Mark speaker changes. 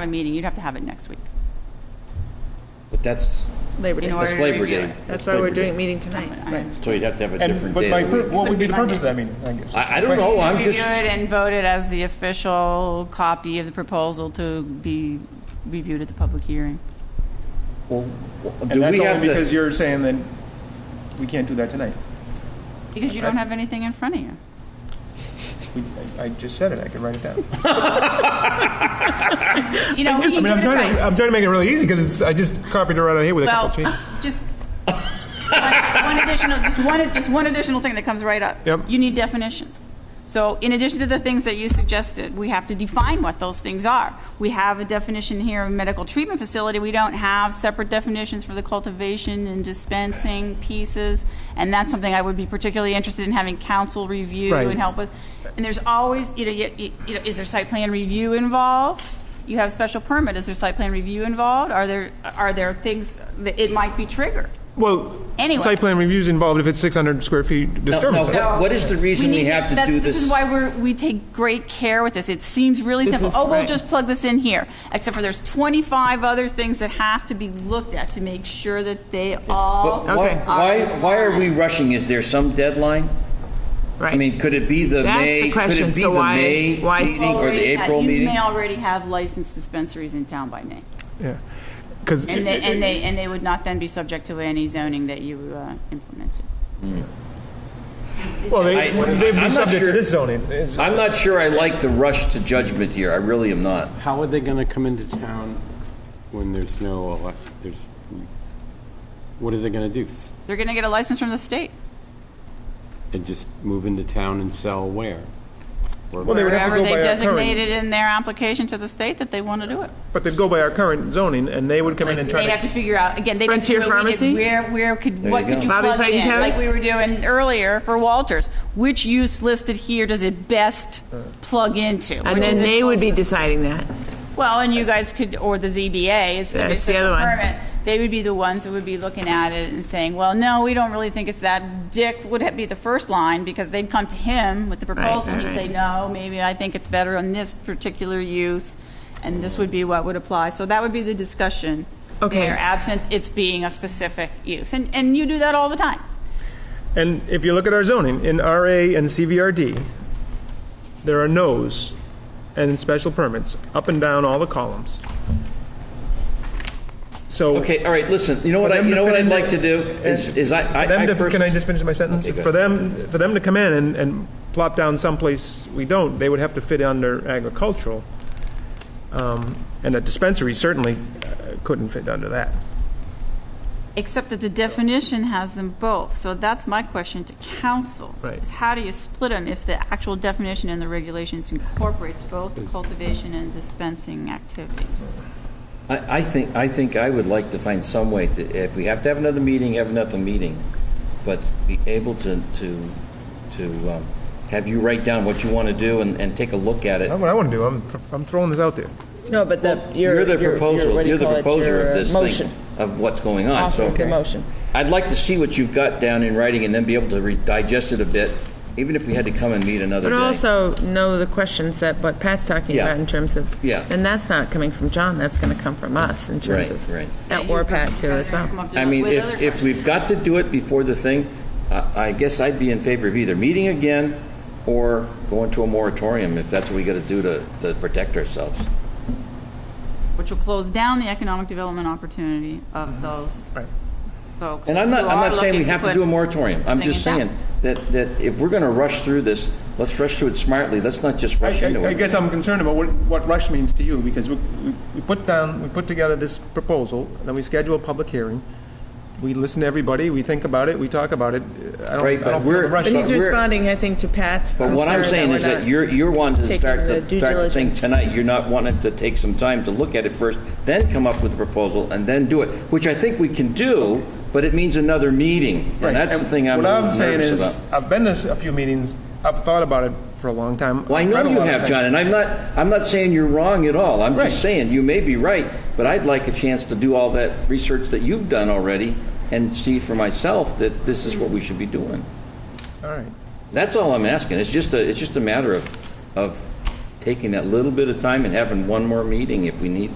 Speaker 1: have a meeting, you'd have to have it next week.
Speaker 2: But that's,
Speaker 3: Labor
Speaker 1: In
Speaker 3: Day.
Speaker 1: order
Speaker 2: that's
Speaker 1: to
Speaker 2: Labor
Speaker 1: review
Speaker 2: Day.
Speaker 1: it.
Speaker 3: That's why we're
Speaker 2: Labor Day.
Speaker 3: doing a meeting
Speaker 1: I
Speaker 3: tonight. Right.
Speaker 1: understand.
Speaker 2: So you'd have to have a
Speaker 4: And,
Speaker 2: different
Speaker 4: but
Speaker 2: day
Speaker 4: my,
Speaker 2: of the
Speaker 4: pur-
Speaker 2: week.
Speaker 4: what would be the purpose of that meeting? guess?
Speaker 2: I, I don't know, I'm
Speaker 1: Review
Speaker 2: just,
Speaker 1: it and vote it as the official copy of the proposal to be reviewed at the public hearing.
Speaker 2: well,
Speaker 4: And
Speaker 2: do
Speaker 4: that's
Speaker 2: we have
Speaker 4: only because
Speaker 2: to,
Speaker 4: you're saying that we can't do that tonight.
Speaker 1: Because you don't have anything in front of you.
Speaker 4: We, I, I just said it, I could write it down.
Speaker 1: You know, we can
Speaker 4: I mean,
Speaker 1: give it
Speaker 4: I'm
Speaker 1: a
Speaker 4: trying to,
Speaker 1: try.
Speaker 4: I'm trying to make it really easy because I just copied it right out of here with a
Speaker 1: Well,
Speaker 4: couple changes.
Speaker 1: just, one one additional, just one, just one additional thing that comes right up.
Speaker 4: Yep.
Speaker 1: You need definitions. So in addition to the things that you suggested, we have to define what those things are. We have a definition here of medical treatment facility. We don't have separate definitions for the cultivation and dispensing pieces. And that's something I would be particularly interested in having council review
Speaker 4: Right.
Speaker 1: and help with. And there's always, you know, you, you- you know, is there site plan review involved? You have special permit. Is there site plan review involved? Are there, are there things that it might be triggered?
Speaker 4: Well,
Speaker 1: Anyway.
Speaker 4: site plan review's involved if it's 600 square feet disturbance.
Speaker 2: no, What- what is the reason we
Speaker 1: need
Speaker 2: have to
Speaker 1: that's-
Speaker 2: do
Speaker 1: This
Speaker 2: this?
Speaker 1: is why we're, we take great care with this. It seems really simple. Oh, we'll just plug this in here, except for there's 25 other things that have to be looked at to make sure that they all.
Speaker 2: but why,
Speaker 3: Okay.
Speaker 2: why, why are we rushing? Is there some deadline?
Speaker 3: Right.
Speaker 2: I mean, could it be the
Speaker 3: That's the
Speaker 2: May, could
Speaker 3: question.
Speaker 2: it be
Speaker 3: So
Speaker 2: the
Speaker 3: why
Speaker 2: May
Speaker 3: is- why is-
Speaker 2: meeting or the
Speaker 1: Already had-
Speaker 2: April
Speaker 1: You
Speaker 2: meeting?
Speaker 1: may already have licensed dispensaries in town by May.
Speaker 4: Yeah. Because
Speaker 1: And they, and they, and they would not then be subject to any zoning that you uh, implemented.
Speaker 4: Well,
Speaker 2: I-
Speaker 4: they, they'd
Speaker 2: I'm
Speaker 4: be
Speaker 2: not
Speaker 4: subject
Speaker 2: sure.
Speaker 4: to this zoning. It's-
Speaker 2: I'm not sure I like the rush to judgment here, I really am not.
Speaker 5: How are they going to come into town when there's no elect, there's, what are they going to do? S-
Speaker 1: They're going to get a license from the state.
Speaker 5: And just move into town and sell where? Or-
Speaker 4: Well, they would have to
Speaker 1: Wherever
Speaker 4: go
Speaker 1: they
Speaker 4: by our current,
Speaker 1: designated in their application to the state that they want to do it.
Speaker 4: but they'd go by our current zoning, and they would come in and try
Speaker 1: They'd have to
Speaker 4: to.
Speaker 1: figure out, again, they'd have to
Speaker 3: Frontier
Speaker 1: figure out what we did.
Speaker 3: Pharmacy?
Speaker 1: where, where could, what
Speaker 2: you
Speaker 1: could
Speaker 2: go.
Speaker 1: you
Speaker 3: Bobby
Speaker 1: plug it in?
Speaker 3: Clayton
Speaker 1: Like
Speaker 3: House?
Speaker 1: we were doing earlier for Walters. Which use listed here does it best plug into?
Speaker 3: And then they would be deciding that.
Speaker 1: Well, and you guys could, or the ZBA, is
Speaker 3: That's the other one.
Speaker 1: Permit, they would be the ones that would be looking at it and saying, well, no, we don't really think it's that. Dick would ha- be the first line because they'd come to him with the proposal and he'd
Speaker 3: right,
Speaker 1: say, no, maybe I think it's better on this particular use, and this would be what would apply. So that would be the discussion.
Speaker 3: Okay.
Speaker 1: there, Absent it's being a specific use, and, and you do that all the time.
Speaker 4: And if you look at our zoning, in RA and CVRD, there are no's and special permits up and down all the columns. So.
Speaker 2: Okay, all right, listen, you know what I,
Speaker 4: For them
Speaker 2: you
Speaker 4: to
Speaker 2: know
Speaker 4: fit
Speaker 2: what I'd
Speaker 4: into-
Speaker 2: like to do is,
Speaker 4: and
Speaker 2: is I,
Speaker 4: for them
Speaker 2: I, I
Speaker 4: to- Can I
Speaker 2: personally.
Speaker 4: just finish my sentence?
Speaker 2: Okay, go
Speaker 4: For them, for them to come in and, and plop down someplace we don't, they would have to fit under agricultural. Um, And a dispensary certainly uh, couldn't fit under that.
Speaker 1: Except that the definition has them both, so that's my question to council.
Speaker 4: Right.
Speaker 1: Is how do you split them if the actual definition in the regulations incorporates both the cultivation and dispensing activities?
Speaker 2: I, I think, I think I would like to find some way to, if we have to have another meeting, have another meeting, but be able to, to, to um, have you write down what you want to do and, and take a look at it.
Speaker 4: That's what I want to do. I'm, I'm throwing this out there.
Speaker 6: No, but the, your.
Speaker 2: You're the
Speaker 6: your- your- what
Speaker 2: proposal,
Speaker 6: do you
Speaker 2: you're the
Speaker 6: call it?
Speaker 2: proposer
Speaker 6: Your uh,
Speaker 2: of this
Speaker 6: Motion.
Speaker 2: thing, of what's going on, so.
Speaker 6: Offer the motion.
Speaker 2: I'd like to see what you've got down in writing and then be able to re- digest it a bit, even if we had to come and meet another
Speaker 3: But
Speaker 2: day.
Speaker 3: also know the questions that, what Pat's talking
Speaker 2: Yeah.
Speaker 3: about in terms of.
Speaker 2: Yeah.
Speaker 3: And that's not coming from John, that's going to come from us in
Speaker 2: Right,
Speaker 3: terms of.
Speaker 2: right.
Speaker 3: At Or Pat too as well.
Speaker 1: Come up to
Speaker 2: I
Speaker 1: it
Speaker 2: mean,
Speaker 1: with
Speaker 2: if,
Speaker 1: other
Speaker 2: if we've got to do it before the thing, I I guess I'd be in favor of either meeting again or going to a moratorium if that's what we got to do to, to protect ourselves.
Speaker 1: questions, Which will close down the economic development opportunity of those
Speaker 4: Mm-hmm. Right.
Speaker 1: folks.
Speaker 2: And I'm not,
Speaker 1: who
Speaker 2: I'm
Speaker 1: are
Speaker 2: not saying we
Speaker 1: looking
Speaker 2: have to do
Speaker 1: put-
Speaker 2: a moratorium. I'm
Speaker 1: thing
Speaker 2: just
Speaker 1: in town.
Speaker 2: saying that, that if we're going to rush through this, let's rush through it smartly. Let's not just rush
Speaker 4: I-
Speaker 2: into
Speaker 4: I, I
Speaker 2: it.
Speaker 4: guess I'm concerned about what, what rush means to you, because we, we- we put down, we put together this proposal, then we schedule a public hearing. We listen to everybody, we think about it, we talk about it. I don't, I
Speaker 2: Right, but
Speaker 4: don't feel the
Speaker 2: we're-
Speaker 4: rush.
Speaker 3: But he's
Speaker 2: But we're-
Speaker 3: responding, I think, to Pat's
Speaker 2: But what I'm
Speaker 3: concern
Speaker 2: saying
Speaker 3: we're
Speaker 2: is that
Speaker 3: not-
Speaker 2: you're, you're wanting to
Speaker 3: taking
Speaker 2: start
Speaker 3: the
Speaker 2: the,
Speaker 3: due
Speaker 2: start the thing
Speaker 3: diligence.
Speaker 2: tonight. You're not wanting to take some time to look at it first, then come up with a proposal, and then do it, which I think we can do, but it means another meeting.
Speaker 4: Right,
Speaker 2: And that's
Speaker 4: and
Speaker 2: the thing I'm
Speaker 4: What I'm saying
Speaker 2: nervous
Speaker 4: is,
Speaker 2: about.
Speaker 4: I've been to s- a few meetings, I've thought about it for a long time.
Speaker 2: Well, I
Speaker 4: I've
Speaker 2: know
Speaker 4: read a
Speaker 2: you
Speaker 4: lot of
Speaker 2: have,
Speaker 4: things.
Speaker 2: John, and I'm not, I'm not saying you're wrong at all. I'm
Speaker 4: Right.
Speaker 2: just saying, you may be right, but I'd like a chance to do all that research that you've done already and see for myself that this is what we should be doing.
Speaker 4: All right.
Speaker 2: That's all I'm asking. It's just a, it's just a matter of, of taking that little bit of time and having one more meeting if we need to.